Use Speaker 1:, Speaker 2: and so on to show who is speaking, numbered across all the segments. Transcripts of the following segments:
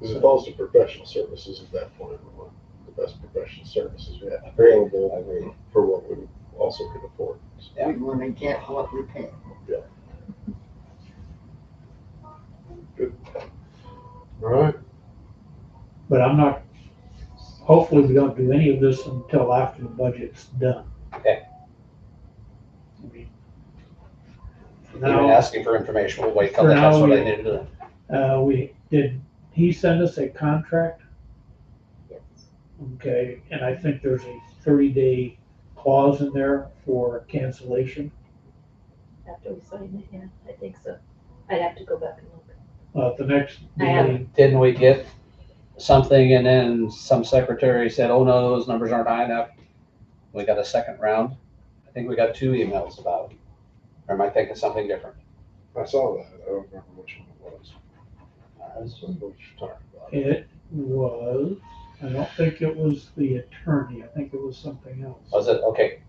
Speaker 1: Because it falls to professional services at that point, we want the best professional services we have available
Speaker 2: agree.
Speaker 1: for what we also can afford.
Speaker 2: Yeah.
Speaker 3: We wanna get what we pay.
Speaker 1: All right,
Speaker 4: But I'm not, hopefully we don't do any of this until after the budget's done.
Speaker 2: Okay.
Speaker 4: I mean, for
Speaker 2: Even
Speaker 4: Now,
Speaker 2: asking for information, we'll wait till
Speaker 4: For
Speaker 2: then. that's
Speaker 4: now,
Speaker 2: what I
Speaker 4: yeah.
Speaker 2: need to do.
Speaker 4: uh, we, did he send us a contract? Okay, and I think there's a thirty day clause in there for cancellation.
Speaker 5: after we sign it, yeah, I think so. I'd have to go back and look.
Speaker 4: Uh, at the next
Speaker 5: I have-
Speaker 4: meeting,
Speaker 2: Didn't we get something and then some secretary said, oh no, those numbers aren't high enough? We got a second round. I think we got two emails about it. Or am I thinking something different?
Speaker 1: I saw that, I don't remember which one it was,
Speaker 2: Uh,
Speaker 1: I don't know what you're talking about.
Speaker 4: it was, I don't think it was the attorney, I think it was something else.
Speaker 2: Was it, okay,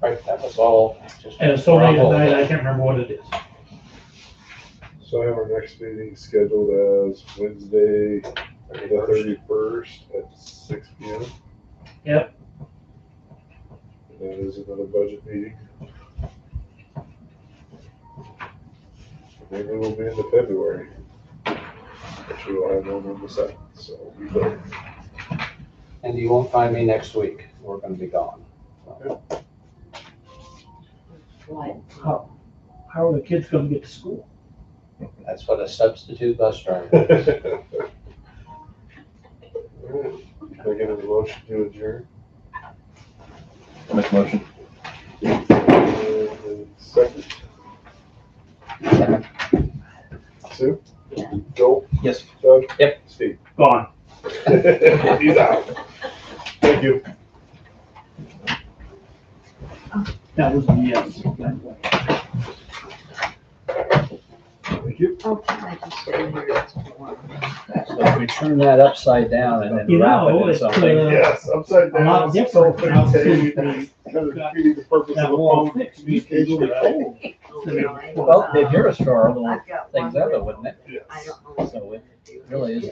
Speaker 2: right, that was all. just-
Speaker 4: And so late at night, I can't remember what it is.
Speaker 1: So I have our next meeting scheduled as Wednesday, the
Speaker 2: 31st.
Speaker 1: thirty-first at six P M.
Speaker 4: Yep.
Speaker 1: And That is another budget meeting. Maybe we'll be into February. Which we will have one on the second, so we will.
Speaker 2: And you won't find me next week. We're gonna be gone.
Speaker 5: Why?
Speaker 4: How, how are the kids gonna get to school?
Speaker 2: That's what a substitute bus driver.
Speaker 1: Alright, Can I get a motion to adjourn? motion. Second, Sue?
Speaker 5: Yeah.
Speaker 1: Joel?
Speaker 2: Yes.
Speaker 1: Doug?
Speaker 2: Yep.
Speaker 1: Steve?
Speaker 4: Gone.
Speaker 1: He's out. Thank you.
Speaker 4: That was a yes, by the way.
Speaker 1: Thank you.
Speaker 5: Oh, I just said here, that's what I want.
Speaker 2: So if we turn that upside down and then
Speaker 4: You
Speaker 2: wrap
Speaker 4: know,
Speaker 2: it in
Speaker 4: it's,
Speaker 2: something.
Speaker 4: uh,
Speaker 1: Yes, upside
Speaker 4: A
Speaker 1: down.
Speaker 4: lot different from how it was.
Speaker 1: Kind of defeating the purpose of
Speaker 4: That
Speaker 1: a
Speaker 4: wall
Speaker 1: phone
Speaker 4: fixed, it used to be
Speaker 1: communication.
Speaker 4: really cold.
Speaker 2: Well, if you're a star, little
Speaker 3: I've got
Speaker 2: things
Speaker 3: one.
Speaker 2: out of it, wouldn't it?
Speaker 1: Yes.
Speaker 3: I don't know.
Speaker 2: So it really is